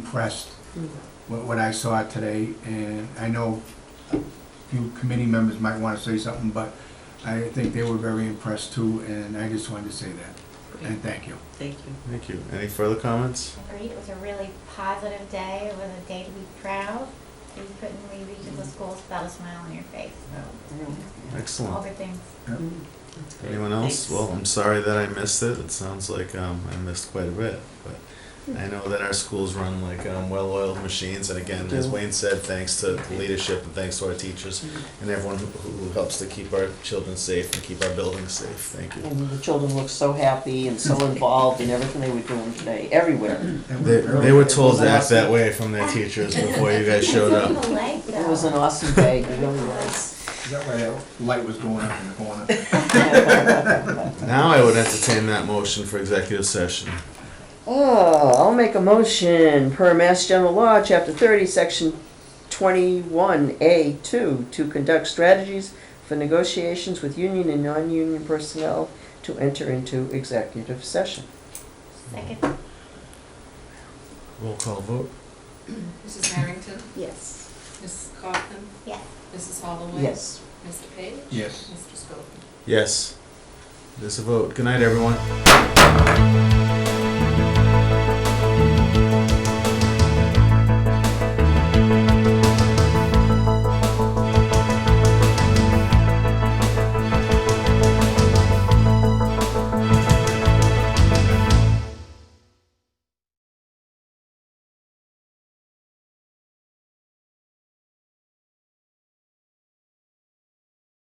impressed with what I saw today, and I know a few committee members might want to say something, but I think they were very impressed too, and I just wanted to say that, and thank you. Thank you. Thank you. Any further comments? great. It was a really positive day. It was a day to be proud. You couldn't leave each of the schools without a smile on your face. So, all Excellent. good things. Anyone else? Well, I'm sorry that I missed it. It sounds like um, I missed quite a bit, but I know that our schools run like um, well-oiled machines. And again, as Wayne said, thanks to the leadership and thanks to our teachers and everyone who, who helps to keep our children safe and keep our buildings safe. Thank you. And the children looked so happy and so involved in everything they were doing today, everywhere. They, they were told to act that way from their teachers before you guys showed up. It's in the lake, though. It was an awesome day, it really was. Is that why that light was going up in the corner? Now I would entertain that motion for executive session. Oh, I'll make a motion per Mass General Law, Chapter 30, Section 21A2, to conduct strategies for negotiations with union and non-union personnel to enter into executive session. Second. Roll call vote. Mrs. Harrington, Yes. Mrs. Kaufman, Yes. Mrs. Holloway. Yes. Mr. Page. Yes. Mr. Scobie. Yes. There's a vote. Good night, everyone.